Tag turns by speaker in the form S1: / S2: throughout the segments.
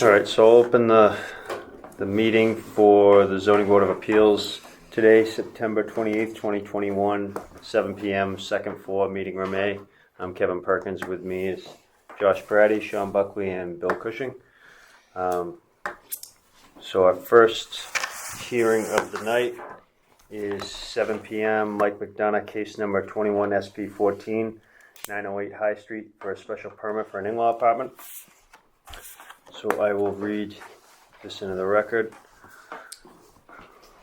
S1: All right, so I'll open the, the meeting for the zoning board of appeals today, September 28th, 2021, 7 PM, second floor, meeting room A. I'm Kevin Perkins, with me is Josh Brady, Sean Buckley, and Bill Cushing. Um, So our first hearing of the night is 7 PM, Mike McDonough, case number 21 SP 14, 908 High Street, for a special permit for an in-law apartment. So I will read this into the record.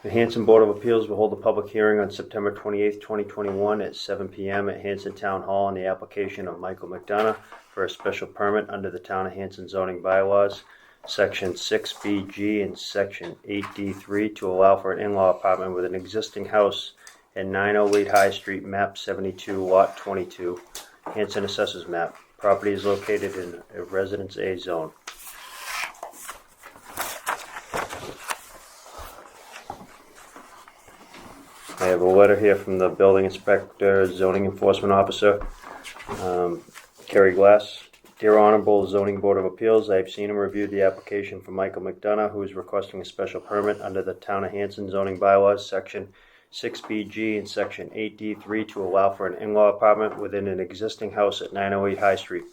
S1: The Hanson Board of Appeals will hold a public hearing on September 28th, 2021 at 7 PM at Hanson Town Hall on the application of Michael McDonough for a special permit under the Town of Hanson zoning bylaws, Section 6BG and Section 8D3 to allow for an in-law apartment with an existing house at 908 High Street, map 72, lot 22, Hanson Assessors map. Property is located in a Residence A zone. I have a letter here from the building inspector, zoning enforcement officer, um, Kerry Glass. Dear Honorable Zoning Board of Appeals, I have seen and reviewed the application for Michael McDonough, who is requesting a special permit under the Town of Hanson zoning bylaws, Section 6BG and Section 8D3 to allow for an in-law apartment within an existing house at 908 High Street.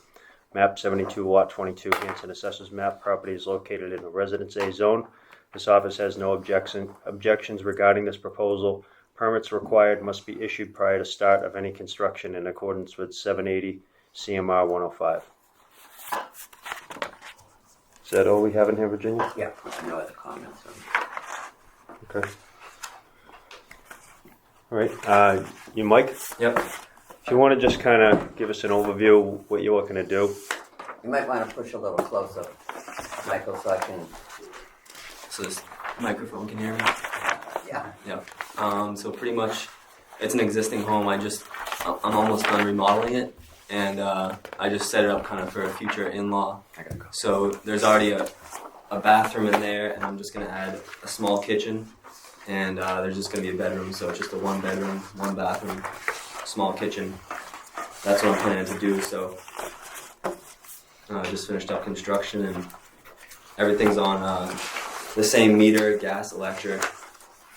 S1: Map 72, Lot 22, Hanson Assessors Map. Property is located in a Residence A zone. This office has no objection, objections regarding this proposal. Permits required must be issued prior to start of any construction in accordance with 780 CMR 105. Is that all we have in here, Virginia?
S2: Yeah, no other comments.
S1: Okay. All right, uh, you, Mike, if
S2: Yep.
S1: you want to just kind of give us an overview of what you're looking to do.
S2: You might want to push a little closer, Michael, so I can,
S3: So this microphone can hear me.
S2: yeah.
S3: Yeah. Um, so pretty much, it's an existing home. I just, I- I'm almost done remodeling it, and uh, I just set it up kind of for a future in-law.
S2: I gotta go.
S3: So there's already a, a bathroom in there, and I'm just gonna add a small kitchen, and uh, there's just gonna be a bedroom. So it's just a one bedroom, one bathroom, small kitchen. That's what I'm planning to do. So uh, I just finished up construction, and everything's on uh, the same meter, gas, electric.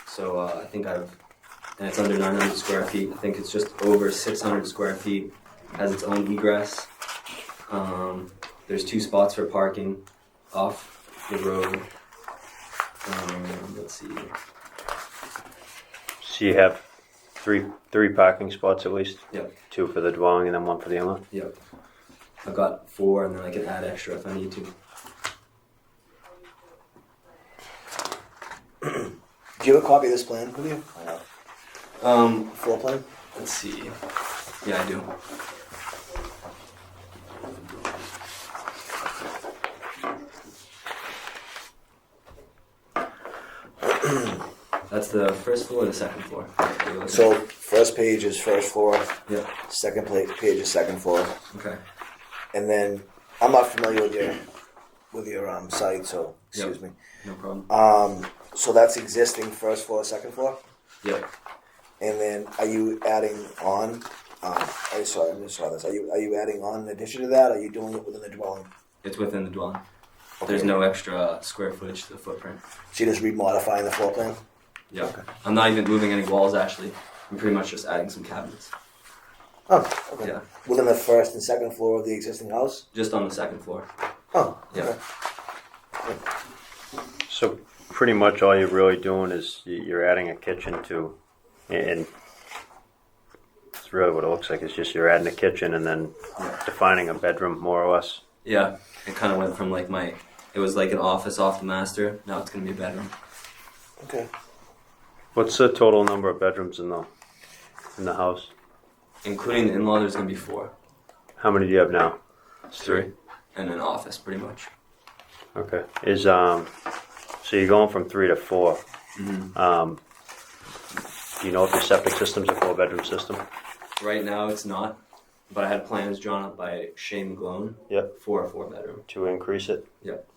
S3: So uh, I think I've, and it's under 900 square feet. I think it's just over 600 square feet. Has its own egress. Um, there's two spots for parking off the road. Um, let's see.
S1: So you have three, three parking spots at least?
S3: Yep.
S1: Two for the dwelling and then one for the in-law?
S3: Yep. I've got four, and then I can add extra if I need to.
S4: Do you have a copy of this plan with you?
S3: Um,
S4: Floor plan?
S3: let's see. Yeah, I do. That's the first floor or the second floor?
S4: So first page is first floor,
S3: yeah,
S4: second pla- page is second floor,
S3: okay.
S4: and then I'm not familiar with your with your um, site, so excuse me.
S3: No problem.
S4: Um, so that's existing first floor, second floor,
S3: Yep.
S4: and then are you adding on? Um, I saw I just saw this. Are you are you adding on in addition to that? Are you doing it within the dwelling?
S3: It's within the dwelling. There's no extra square footage to the footprint.
S4: So you're just remodifying the floor plan.
S3: Yeah. I'm not even moving any walls actually. I'm pretty much just adding some cabinets.
S4: Oh, okay.
S3: Yeah.
S4: Within the first and second floor of the existing house.
S3: Just on the second floor.
S4: Oh,
S3: Yeah.
S4: okay.
S1: So pretty much all you're really doing is y- you're adding a kitchen to, and it's really what it looks like. It's just you're adding a kitchen and then defining a bedroom more or less.
S3: Yeah. It kinda went from like my it was like an office off the master. Now it's gonna be a bedroom.
S4: Okay.
S1: What's the total number of bedrooms in the in the house?
S3: Including the in law there's gonna be four.
S1: How many do you have now? It's
S3: And an office pretty much.
S1: Okay. Is um, so you're going from three to 4 Um, do you know if your septic system's a four bedroom system?
S3: Right now it's not. But I had plans drawn up by Shane McGlone
S1: Yep.
S3: for a four bedroom.
S1: To increase it.
S3: Yep.